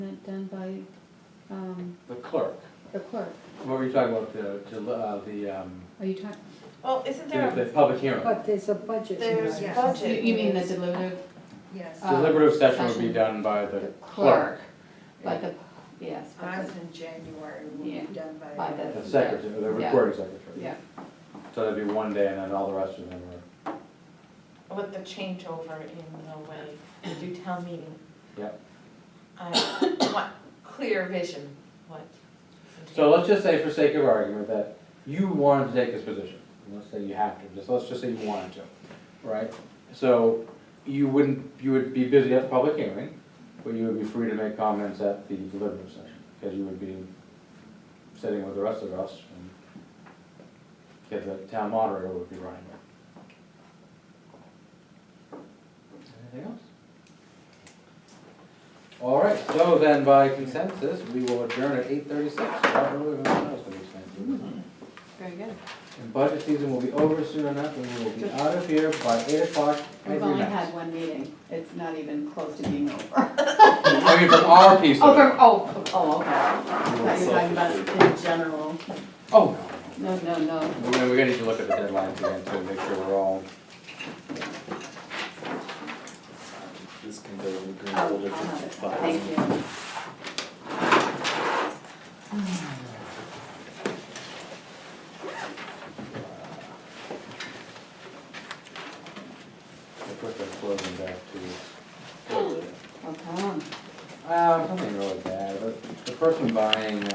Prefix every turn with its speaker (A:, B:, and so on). A: it done by, um,
B: The clerk,
A: the clerk?
B: what were you talking about, the, to, uh, the, um,
A: Are you talking,
C: Well, isn't there,
B: the, the
C: a-
B: public hearing?
D: But there's a budget.
C: there's
D: here.
A: you
C: budget.
A: you mean the deliberative
D: Yes.
A: uh,
B: Deliberative session would
A: session.
B: be done by the
A: the clerk?
B: clerk,
A: But the, yes, but
D: Ours
A: the,
D: in January will be
A: Yeah.
D: done by.
A: by the.
B: the secretary, the
A: Yeah.
B: recording secretary.
A: Yeah,
B: So that'd be one day and then all the rest of them are,
C: with the changeover in the way we do town meeting,
B: yep.
C: I want clear vision, what.
B: So let's just say for sake of argument that you wanted to take this position, let's say you have to, just, let's just say you wanted to, right? So you wouldn't, you would be busy at the public hearing, but you would be free to make comments at the deliberative session, because you would be sitting with the rest of us and because the town moderator would be running it. Anything else? All right, so then by consensus, we will adjourn at eight thirty-six. And
A: very good.
B: budget season will be over soon enough, and we will be out of here by eight o'clock
A: We've
B: every
A: only
B: night.
A: had one meeting, it's not even close to being over.
B: I mean, from our piece
A: Oh,
B: of
A: for,
B: it.
A: oh, oh, okay. I
B: we will
A: thought you were talking about
B: close
A: in general,
B: it. Oh,
A: no, no, no.
B: no, we're, we're gonna need to look at the deadlines again to make sure we're all,
E: This can go in the green
A: I'll
E: folder
A: I'll
E: for
A: have it,
E: five.
A: thank you.
B: to put the closing back to. um,
A: I'll come.
B: Uh, something really bad, but the person buying